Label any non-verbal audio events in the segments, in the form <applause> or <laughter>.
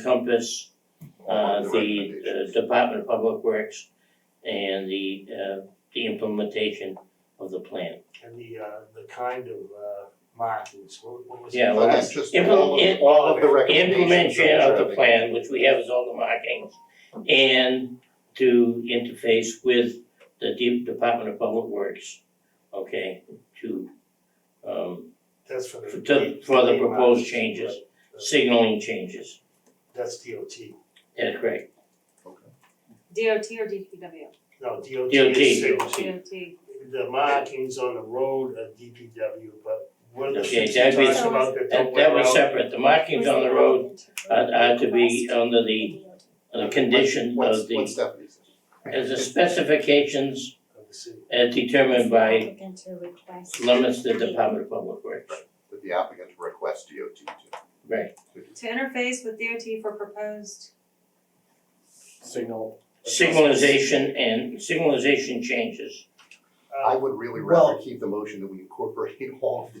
encompass uh All the recommendations. uh, Department of Public Works and the uh the implementation of the plan. And the, uh, the kind of, uh, markings, what, what was it? Yeah, well, But that's- that's just implement- all of, it- all of the recommendations. Implementation that of we're the plan, which we have as all the markings, and to interface with the De- Department of Public Works, okay, to um That's for the. For the- for the main proposed markings, changes. right. signaling changes. That's DOT. That's correct. DOT or DPW? No, DOT DOT. is signals. DOT. The markings on the road are DPW, but what are the Okay, things that you was- talked about that That don't that was work out? separate. The markings on the road are are to be uh, under the the condition What's- of the What's Stephanie's? as the specifications Of the city. as determined by limits limits the Department of Public Works. That the applicant requests DOT to. Right, To interface with DOT for proposed, signal. signalization and signalization changes. I Uh, would really Well- rather keep the motion that we incorporate <laughs> all of the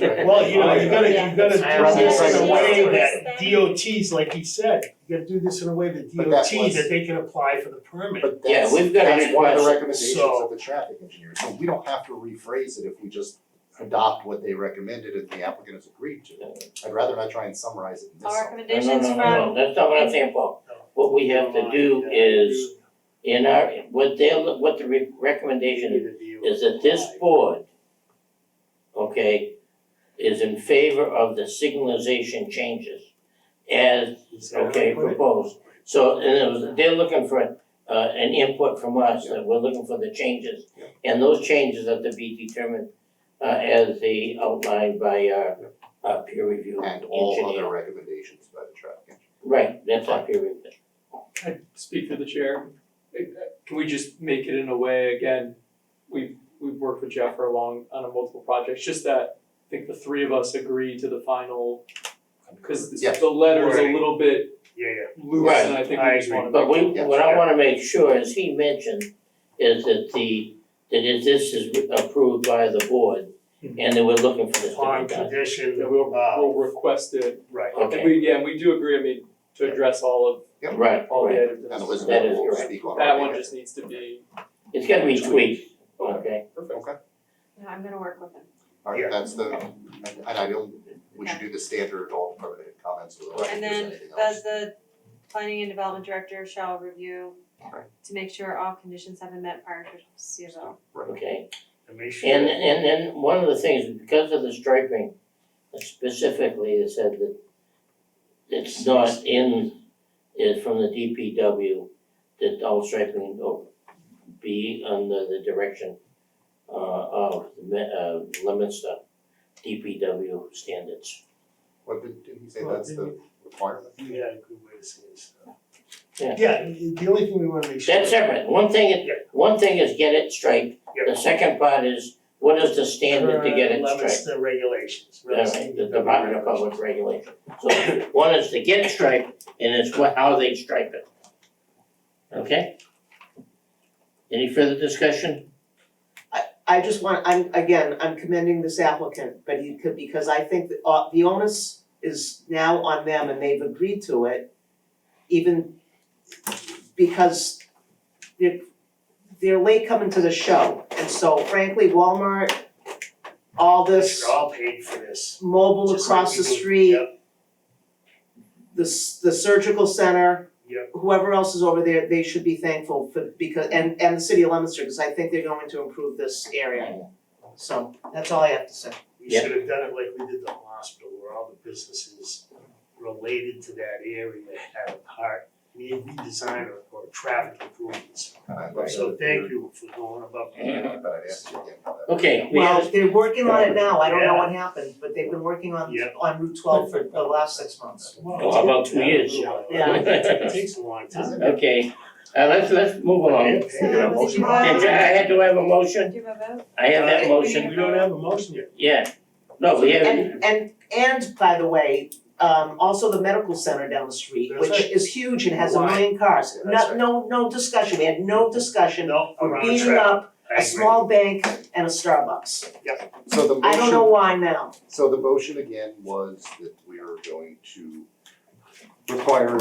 <laughs> right? well, you know, you gotta, Yeah. you gotta do this in a way that Yeah. DOTs, like he said, you gotta do this in a way that But that DOT, was- that they can apply for the permit. But Yeah, that's, we've got a that's one of the request, recommendations so- of the traffic engineer, so we don't have to rephrase it if we just adopt what they recommended and the applicant has agreed to. I'd rather not try and summarize it in this. our sentence. No, no, recommendations no, from. no, no, that's not what I'm saying, Paul. What we have to do is in our, what they what the re- recommendation is, is that this board, okay, is in favor of the signalization changes as okay, proposed. So, and it was, they're looking for, uh, an input from us, that we're looking for the changes. Yeah. And those changes have to be determined, uh, as the outlined by our, our peer review And all other engineer. recommendations by the traffic engineer. Right, that's our peer review. I speak to the chair. Can we just make it in a way, again, we've, we've worked with Jeff for a long, on a multiple projects, just that I think the three of us agree to the final, cause this- Yes. the letter's a Wording. little bit Yeah, yeah. loose and I think Right, I we just wanna. But we, Yeah. what I wanna make sure, as he mentioned, is that the, that if this is approved by the board, Hmm. and that we're looking for this to on be done. condition That of, we'll, uh, we'll request it, right. and Okay. we, yeah, we do agree, I mean, to address all Yep. Right, of, all the right, items. And Elizabeth That is will correct. speak on That our one behalf. just needs to be, it's gotta be tweaked, okay? perfect. No, I'm gonna work with him. All Yeah. right, that's the, and and I don't, we should do the standard all permitted comments with like if And there's then anything else. Does the planning and development director shall review Right. to make sure all conditions have been met prior to CFO. Okay. And make sure. And and then one of the things, because of the striping, specifically, it said that it's not in, is from the DPW, that all striping will be under the direction uh of the me- uh limits of DPW standards. What did, did he say Well, that's the didn't requirement? You had a good way to say this. Yeah. the only thing we wanna make sure. That's separate, one thing, Yeah. is- one thing is get it striped, Yeah. the second part is, what is the standard to get it Current striped? limits the regulations. All right, the Department of Public Regulation. So one is to get striped and it's what, how they stripe it. Okay? Any further discussion? I just want, I'm, again, I'm commending this applicant, but he could, because I think that, uh, the onus is now on them and they've agreed to it. Even because they're, they're late coming to the show, and so frankly, Walmart, all this They're all paid for this. mobile Just like across the people- street, Yep, the, s- the surgical center. Yep. Whoever else is over there, they should be thankful for, because, and, and the city of Leominster, because I think they're going to improve this area. So, that's all I have to say. we Yeah. should have done it like we did the hospital, where all the businesses related to that area had a part, need redesign or, or traffic improvements. So thank you for going above and beyond. But I'd ask you again how that. Okay, we Well, have, they're working on it now, I don't know what happened, but they've been working on Yeah. on Route twelve for the last six months. Oh, about two years. <laughs> Yeah. It takes a long time. okay, uh, let's, let's move along. Okay. Is there a motion on Did you- I had to have a motion, Do you have a vote? I have that motion, We don't have a motion yet. yeah. No, we have, And and and by the way, um also the medical center down the street, That's which right. is huge and has a Why? million cars, That's no right. no no discussion, we had no discussion. No, around We're beating traffic. up I a agree. small bank and a Starbucks, So the I don't know motion, why now, so the motion again was that we are going to require